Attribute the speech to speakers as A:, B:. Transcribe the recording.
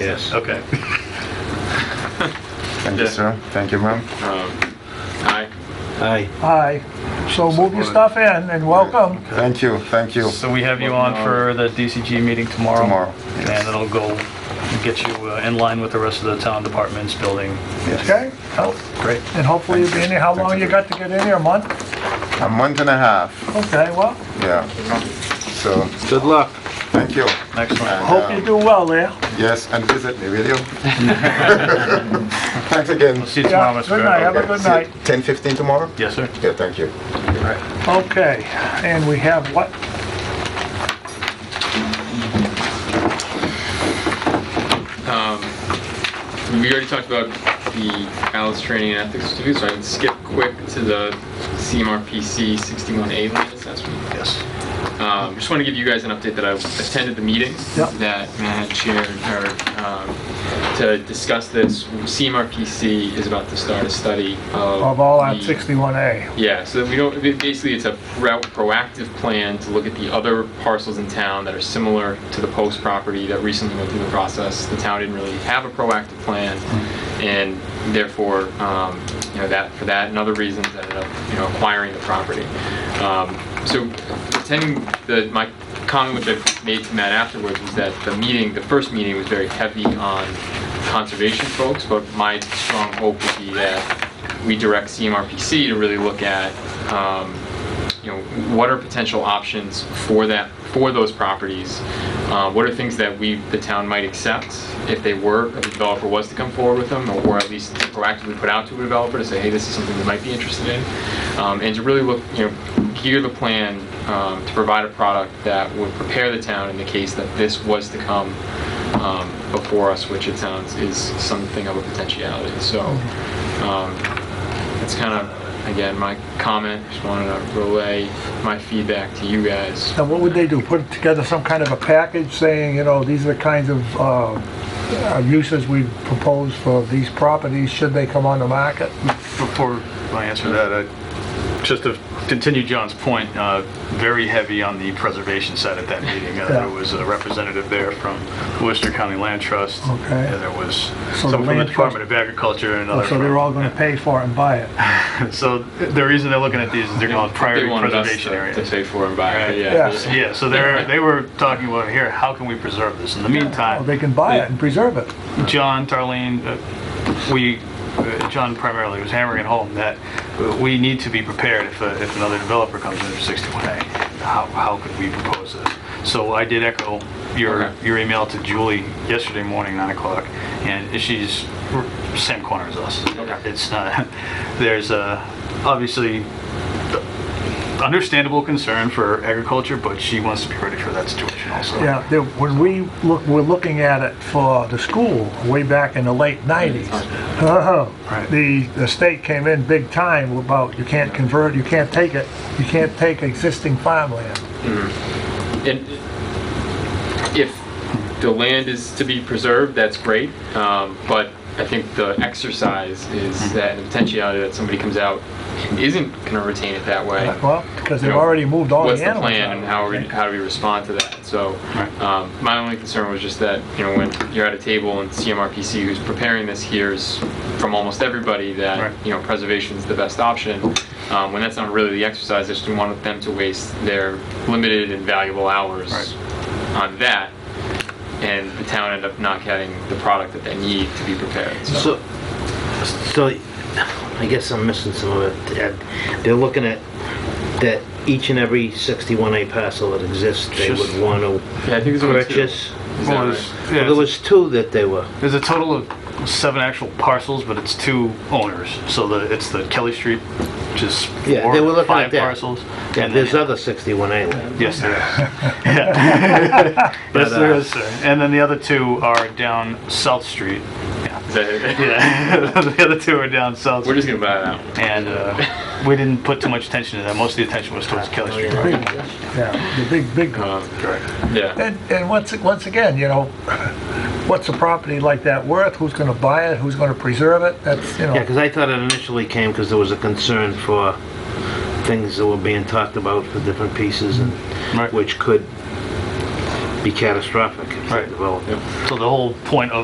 A: Yes.
B: Okay.
C: Thank you,
D: Yeah.
C: sir. Thank you, ma'am.
D: Um, Aye.
A: Aye.
E: Aye. So move your stuff in and welcome.
C: Thank you, thank you.
B: So we have you on for the DCG meeting tomorrow?
C: Tomorrow, yes.
B: And it'll go, get you uh, in line with the rest of the town departments, building,
E: Okay?
B: health. Great.
E: And hopefully you'll be in here. How long you got to get in here? A month?
C: A month and a half,
E: Okay, well,
C: yeah. So,
A: Good luck.
C: thank you.
B: Excellent.
E: hope you do well there.
C: Yes, and visit me, will you? Thanks again.
B: We'll see you tomorrow,
E: Yeah,
B: Mr. Barrett.
E: good night. Have a
C: Okay,
E: good
C: see you
E: night.
C: 10:15 tomorrow?
B: Yes, sir.
C: Yeah, thank you.
E: Okay, and we have what?
D: Um, We already talked about the ALIS training and ethics review, so I can skip quick to the CMRPC 61A land assessment.
B: Yes.
D: Um, Just want to give you guys an update that I attended the meeting
E: Yep.
D: that Matt had chaired, or, um, to discuss this. CMRPC is about to start a study of...
E: Of all on
D: the-
E: 61A.
D: Yeah, so that we don't, ba- basically, it's a pro- proactive plan to look at the other parcels in town that are similar to the Post property that recently went through the process. The town didn't really have a proactive plan, and therefore, um, you know, that, for that and other reasons, ended up, you know, acquiring the property. Um, So attending the, my comment which I made to Matt afterwards was that the meeting, the first meeting was very heavy on conservation folks, but my strong hope would be that we direct CMRPC to really look at, um, you know, what are potential options for that, for those properties? Uh, What are things that we, the town might accept if they were, if a developer was to come forward with them? Or at least proactively put out to a developer to say, hey, this is something we might be interested in? Um, And to really look, you know, gear the plan um, to provide a product that would prepare the town in the case that this was to come um, before us, which it sounds is something of a potentiality. So um, that's kind of, again, my comment. Just wanted to relay my feedback to you guys.
E: Now, what would they do? Put together some kind of a package saying, you know, these are the kinds of uh, uh, uses we propose for these properties, should they come on the market?
B: Before I answer that, I, just to continue John's point, uh, very heavy on the preservation side at that meeting. Uh, There
E: Yeah.
B: was a representative there from Worcester County Land Trust.
E: Okay.
B: And there was
E: So the
B: someone from the
E: land Oh,
B: Department of Agriculture and another.
E: So they're
B: from-
E: all gonna pay for it and buy it.
B: So the reason they're looking at these is they're called priority
D: They wanted us
B: preservation
D: to- uh,
B: areas.
D: To pay for and buy,
B: Right.
D: it,
E: Yes.
D: yeah.
B: Yeah, so they're, they were talking about here, how can we preserve this? In the
E: Or they
B: meantime,
E: can buy it and preserve it.
B: John, Darlene, uh, we, uh, John primarily was hammering it home that uh, we need to be prepared if, uh, if another developer comes in for 61A. How, how could we propose this? So I did echo your,
D: Okay.
B: your email to Julie yesterday morning, 9 o'clock, and she's r- same corner as us. It's not, there's a, obviously, understandable concern for agriculture, but she wants to be ready for that situation also.
E: Yeah, there- when we look, we're looking at it for the school way back in the late 90s. Uh-huh.
B: Right.
E: The, the state came in big time about you can't convert, you can't take it, you can't take existing farmland.
D: And if the land is to be preserved, that's great, um, but I think the exercise
B: Mm-hmm.
D: is that the potentiality that somebody comes out and isn't going to retain it that way.
E: Well, because they've
D: you know,
E: already moved all the
D: What's
E: animals
D: the plan
E: out.
D: and how, we- how do we respond to that? So,
B: Right.
D: um, my only concern was just that, you know, when you're at a table and CMRPC who's preparing this hears from almost everybody
B: Right.
D: that, you know, preservation's the best option, um, when that's not really the exercise, I just didn't want them to waste their limited and valuable hours on that, and the town end up not getting the product that they need to be prepared, so.
A: So, so I guess I'm missing some of it, Ed. They're looking at that each and every 61A parcel that exists, they
B: Just-
A: would want to
D: Yeah, I think there's only two.
A: purchase.
D: Is that
B: Well,
D: right?
B: there's- yeah,
A: Well, there was two that they were.
B: There's a total of seven actual parcels, but it's two owners. So the, it's the Kelly Street, which is
A: Yeah,
B: four,
A: they were looking
B: five
A: at that.
B: parcels.
A: Yeah,
B: and
A: there's
B: then-
A: other 61A land.
B: Yes, there is. Yeah. yes, there is, sir. And then the other two are down South Street.
D: Is that it?
B: Yeah, the other two are down South
D: We're
B: Street.
D: just gonna buy it out.
B: And uh, we didn't put too much attention to that. Most of the attention was towards
A: Oh,
B: Kelly Street.
E: Big- Yeah, the big, big.
D: Um,
B: Correct.
D: yeah.
E: And, and once, once again, you know, what's a property like that worth? Who's gonna buy it? Who's gonna preserve it? That's, you
A: Yeah,
E: know,
A: because I thought it initially came because there was a concern for things that were being talked about for different pieces and
B: Right.
A: which could be catastrophic if they
B: Right.
A: developed.
B: So the whole point of